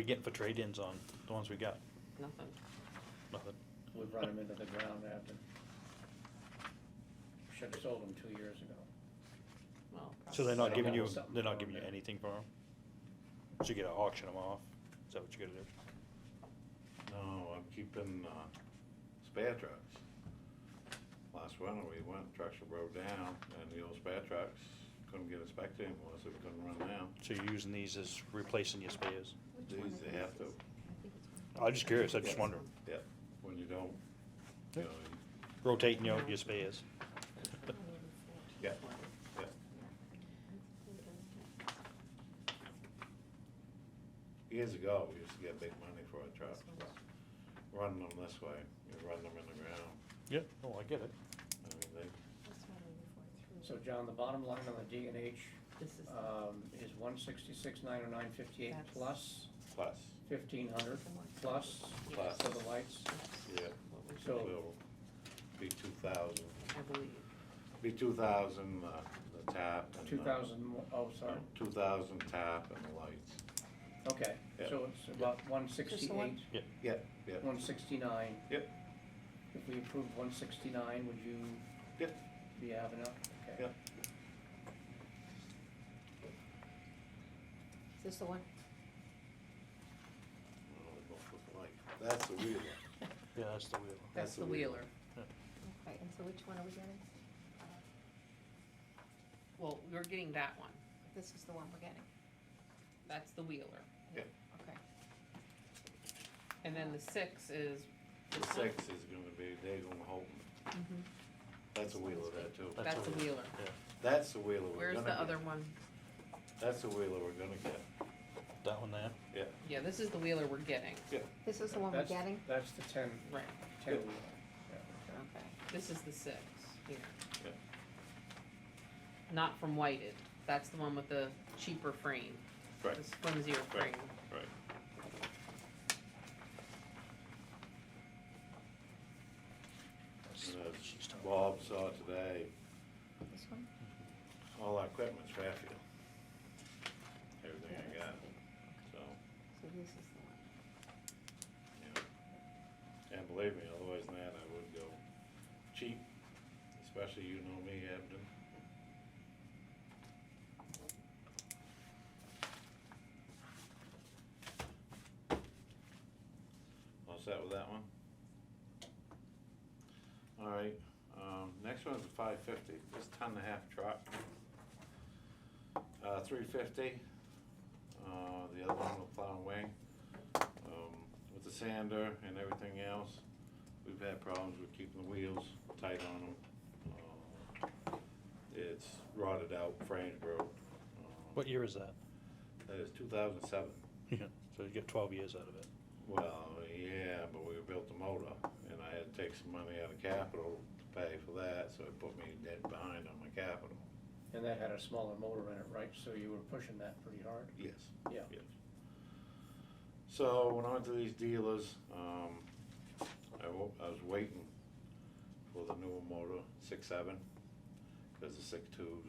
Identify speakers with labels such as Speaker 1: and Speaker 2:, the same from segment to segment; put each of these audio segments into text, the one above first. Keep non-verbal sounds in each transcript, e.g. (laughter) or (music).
Speaker 1: we getting for trade-ins on the ones we got?
Speaker 2: Nothing.
Speaker 1: Nothing.
Speaker 3: We've run them into the ground after. Should've sold them two years ago.
Speaker 2: Well,
Speaker 1: So they're
Speaker 3: I
Speaker 1: not
Speaker 3: don't
Speaker 1: giving
Speaker 3: know,
Speaker 1: you,
Speaker 3: something
Speaker 1: they're not
Speaker 3: wrong
Speaker 1: giving you
Speaker 3: there.
Speaker 1: anything for them? So you gotta auction them off? Is that what you gotta do?
Speaker 4: No, I'm keeping, uh, spare trucks. Last winter, we went, trucks were broke down, and the old spare trucks couldn't get inspected anymore, so we couldn't run them.
Speaker 1: So you're using these as replacing your spares?
Speaker 4: These, they have to,
Speaker 1: I'm just curious, I'm just wondering.
Speaker 4: yeah, when you don't, you know, you-
Speaker 1: Rotating your, your spares?
Speaker 4: yeah, yeah. Years ago, we used to get big money for our trucks, but running them this way, you run them in the ground,
Speaker 1: Yeah. Oh, I get it.
Speaker 4: I mean, they,
Speaker 3: So John, the bottom line on the D and H,
Speaker 2: This is,
Speaker 3: um, is one sixty-six, nine oh nine, fifty-eight
Speaker 2: That's-
Speaker 3: plus
Speaker 4: plus,
Speaker 3: fifteen hundred, plus
Speaker 4: Plus.
Speaker 3: for the lights.
Speaker 4: yeah,
Speaker 2: what we-
Speaker 3: So-
Speaker 4: will be two thousand,
Speaker 2: I believe.
Speaker 4: be two thousand, uh, the tap and the.
Speaker 3: Two thousand mo- Oh, sorry,
Speaker 4: Two thousand tap and the lights.
Speaker 3: okay,
Speaker 4: Yeah.
Speaker 3: so it's about one sixty-eight,
Speaker 4: Yeah, yeah.
Speaker 3: one sixty-nine.
Speaker 4: Yep.
Speaker 3: If we approve one sixty-nine, would you?
Speaker 4: Yep.
Speaker 3: Be having up, okay.
Speaker 4: Yep.
Speaker 5: Is this the one?
Speaker 4: That's the wheel.
Speaker 1: Yeah, that's the wheel.
Speaker 2: That's the Wheeler.
Speaker 5: Okay, and so which one are we getting?
Speaker 2: Well, we're getting that one.
Speaker 5: This is the one we're getting,
Speaker 2: That's the Wheeler.
Speaker 5: okay.
Speaker 2: And then the six is.
Speaker 4: The six is gonna be, they're gonna hold,
Speaker 2: Mhm.
Speaker 4: that's the wheel of that too.
Speaker 2: That's the Wheeler.
Speaker 4: That's the wheel of we're
Speaker 2: Where's
Speaker 4: gonna
Speaker 2: the
Speaker 4: get.
Speaker 2: other one?
Speaker 4: That's the wheel of we're gonna get,
Speaker 1: That one there?
Speaker 4: yeah.
Speaker 2: Yeah, this is the Wheeler we're getting.
Speaker 5: This is the one we're
Speaker 3: That's-
Speaker 5: getting?
Speaker 3: That's the ten,
Speaker 2: Right,
Speaker 3: ten
Speaker 4: Yep.
Speaker 3: wheel. Yeah, okay.
Speaker 5: Okay.
Speaker 2: this is the six here.
Speaker 4: Yeah.
Speaker 2: Not from Whited. That's the one with the cheaper frame.
Speaker 4: Right.
Speaker 2: This flimsier frame.
Speaker 4: Right. Right.
Speaker 1: That's
Speaker 4: And
Speaker 1: what
Speaker 4: as
Speaker 1: she's talking about.
Speaker 4: Bob saw today,
Speaker 5: This one?
Speaker 4: all our equipment's Fairfield. Everything I got, so,
Speaker 5: So this is the one.
Speaker 4: yeah. And believe me, otherwise than that, I would go cheap, especially you know me, Abden. All set with that one? All right, um, next one's a five fifty, this ton and a half truck. Uh, three fifty, uh, the other one with plow and wing, um, with the sander and everything else. We've had problems with keeping the wheels tight on them. Uh, It's rotted out, frames broke. Uh,
Speaker 1: What year is that?
Speaker 4: That is two thousand seven.
Speaker 1: Yeah. So you get twelve years out of it.
Speaker 4: Well, yeah, but we built the motor, and I had to take some money out of capital to pay for that, so it put me dead behind on my capital.
Speaker 3: And that had a smaller motor in it, right? So you were pushing that pretty hard?
Speaker 4: Yes.
Speaker 3: Yeah.
Speaker 4: Yes. So, when I went to these dealers, um, I wa- I was waiting for the newer motor, six seven, cause the six twos,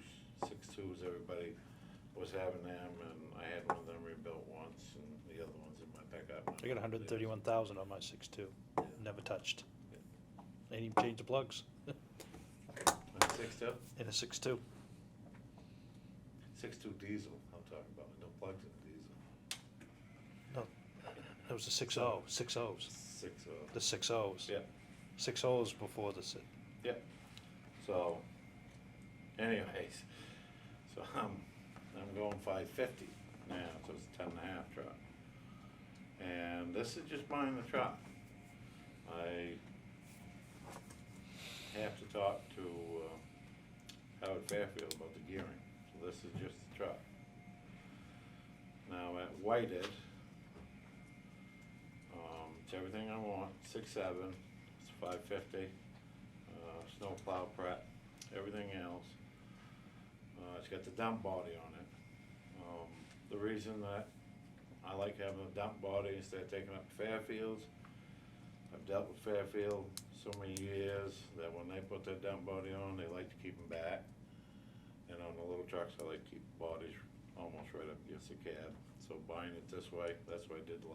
Speaker 4: six twos, everybody was having them, and I had one of them rebuilt once, and the other one's in my pickup.
Speaker 1: I got hundred and thirty-one thousand on my six-two, never touched. Ain't even changed the plugs (laughs)
Speaker 4: Six two?
Speaker 1: in a six-two.
Speaker 4: Six-two diesel, I'm talking about, no plugs in diesel.
Speaker 1: That was the six-oh, six O's,
Speaker 4: Six
Speaker 1: the
Speaker 4: of,
Speaker 1: six O's.
Speaker 4: yeah,
Speaker 1: Six O's before the six.
Speaker 4: so, anyways, so I'm, I'm going five fifty now, so it's a ten and a half truck. And this is just buying the truck. I have to talk to, uh, Howard Fairfield about the gearing, so this is just the truck. Now at Whited, um, it's everything I want, six seven, it's five fifty, uh, snow plow prep, everything else. Uh, it's got the dump body on it. Um, the reason that I like having a dump body instead of taking up Fairfields, I've dealt with Fairfield so many years that when they put that dump body on, they like to keep them back. And on the little trucks, I like to keep bodies almost right up against the cab, so so buying it this way, that's what I did